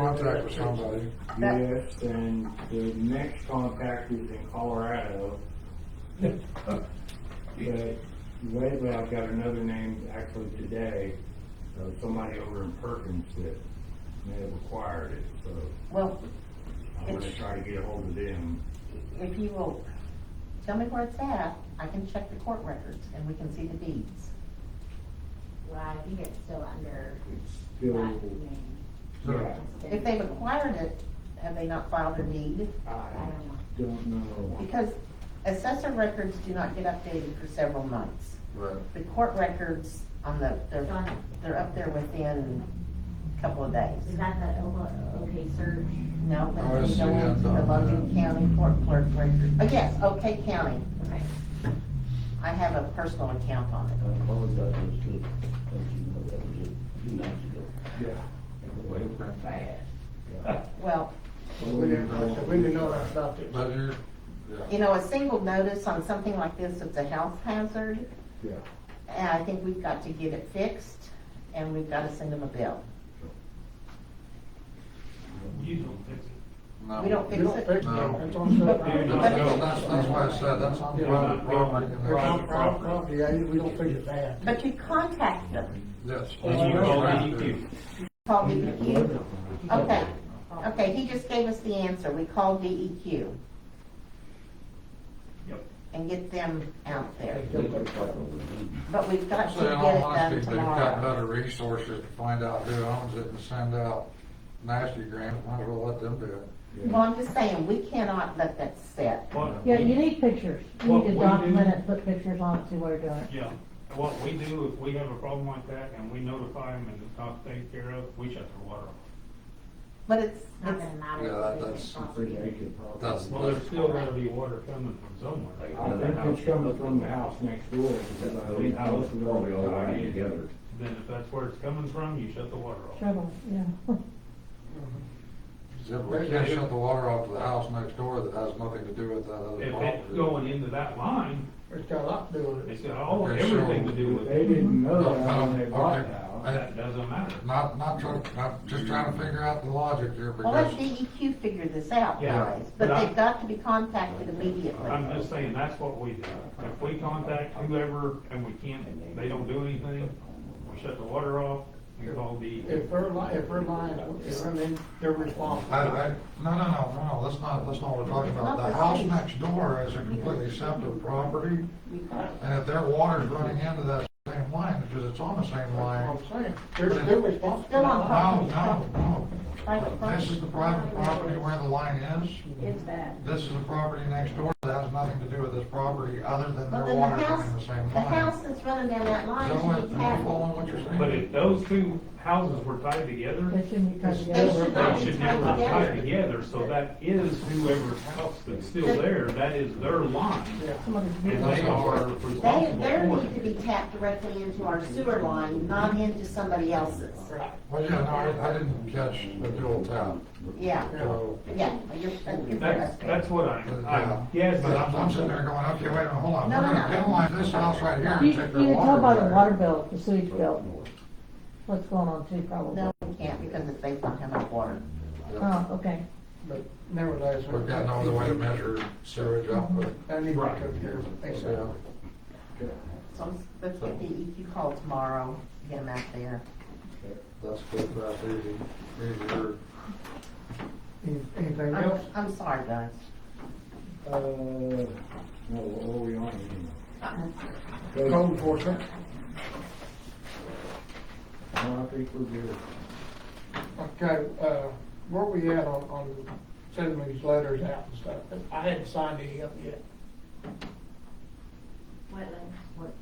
contact with somebody. Yes, and the next contact is in Colorado. But lately, I've got another name, actually today, of somebody over in Perkins that may have acquired it, so Well, I'm gonna try to get ahold of them. if you will, tell me where it's at, I can check the court records and we can see the deeds. Well, I think it's still under It's that still, name. yeah, If they've acquired it, have they not filed a deed? I I don't know. don't know. Because assessor records do not get updated for several months. Right. The court records on the, It's on, they're, they're up there within a couple of days. is that the Oka- okay search? No, Oh, but I you see, go yeah, into the no. Logan County court clerk record. Oh, yes, okay county. Okay. I have a personal account on I it. apologize, it's just, as you know, that was just two nights ago. Yeah. Way went fast. Well, We didn't, we didn't know that about it. But you, you know, a single notice on something like this, it's a health hazard. Yeah. And I think we've got to get it fixed and we've got to send them a bill. You don't fix it. no. We don't No, fix it. No. That's on separate. That's, that's why I said, that's on private property. and that's Private the property. property, yeah, we don't figure that. But you contact them, Yes. That's what all Right we there. do. call DEQ. Okay, okay, he just gave us the answer, we E call DEQ. Yep. And get them out there, They were fucking with me. but we've got So to in get all it done honesty, they've got better tomorrow. resources to find out who owns it and send out nasty grants, might as well let them do it. Well, I'm just saying, we cannot let that sit. What- Yeah, you need pictures. You What need to we document do- it, put pictures on it, see what you're doing. Yeah, what we do, if we have a problem like that and we notify them and it's not taken care of, we shut their water off. But it's, Not it's, gonna Uh-huh. matter. Yeah, if it's that's- possible. Pretty active property. That's- Well, there's still gotta be water coming from I somewhere. think it's coming from the house next door, because I think I was Probably all right together. Then if that's where it's coming from, you shut the water off. Trouble, yeah. Yeah, but We can't shut the water off to the house next door that has nothing to do with that other If property. it's going into that line, It's got a lot to do with it. it's got all, Okay, so- everything to do with They it. didn't know that when they bought the Okay. house. That doesn't matter. Not, not trying, not, just trying to figure out the logic here well, let because DEQ figure this out, Yeah. guys, but But I- they've got to be contacted immediately. I'm just saying, that's what we do. If we contact whoever and we can't, they don't do anything, we shut the water off and call the. If they're li, if they're lying, if they're, in- they're responsible. I, I, no, no, no, no, that's not, that's not what we're talking about. The house next door is a completely separate property. And if their water's running into that same line, because it's on the same line, That's what I'm saying, they're, they're responsible. Still on no, property. no, Private no. This property. is the private property where the line is. It's bad. This is the property next door that has nothing to do with this property other than But their then the water's running house, the same the line. house that's running down that line So what, should be you taxed. following what you're saying? But if those two houses were tied together, They shouldn't be tied They together. should not they be should never tied tie together. together, so that is whoever's house that's still there, that is their line. Somebody's And they are responsible They, they for need to it. be tapped directly into our sewer line, not into somebody else's. Well, yeah, no, I, I didn't catch the dual tap. Yeah, So, yeah, you're, you're That's, that's what I, I guess. But I'm, I'm sitting there going, okay, wait, a minute, hold on, No, we're no, gonna no. penalize this house right here You, and you take can their tell by the water water. bill, the sewage bill, what's going on too, probably. No, we can't because it's based on how much water. Oh, okay. But nevertheless. We've got no other way to measure sewage output. I need to Right. come here, thanks, sir. So let's- let's get the EQ call tomorrow, get them out there. That's good, that's easy, easier. Any- Anything I'm, else? I'm sorry, guys. Uh, no, what are we on here? Code enforcement, No, I think we're good. okay, uh, where we at on, on sending these letters out and stuff? I hadn't signed any up yet. Wetlands, what,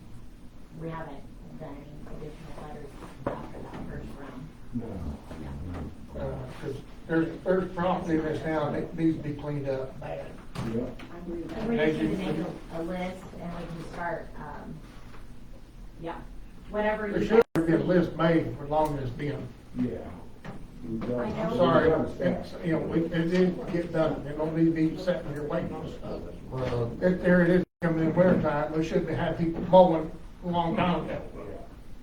we haven't done any additional letters after that first round. No. Because Uh, there's, there's property in this town that needs to be cleaned up bad. Yep. I agree with that. We're just gonna make a, a list and we can start, um, yeah, whatever There you. should be a list made for long as it's been. Yeah. We've got- I know. I'm sorry, we've got to it's, stop. you know, we- it didn't get done. It don't need to be sitting here waiting on stuff. Well, If there it is coming in winter time, we shouldn't have had people mowing a long time ago.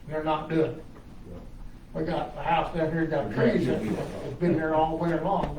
They're not doing it. we got the house down here, got trees, that- it's been there all winter long,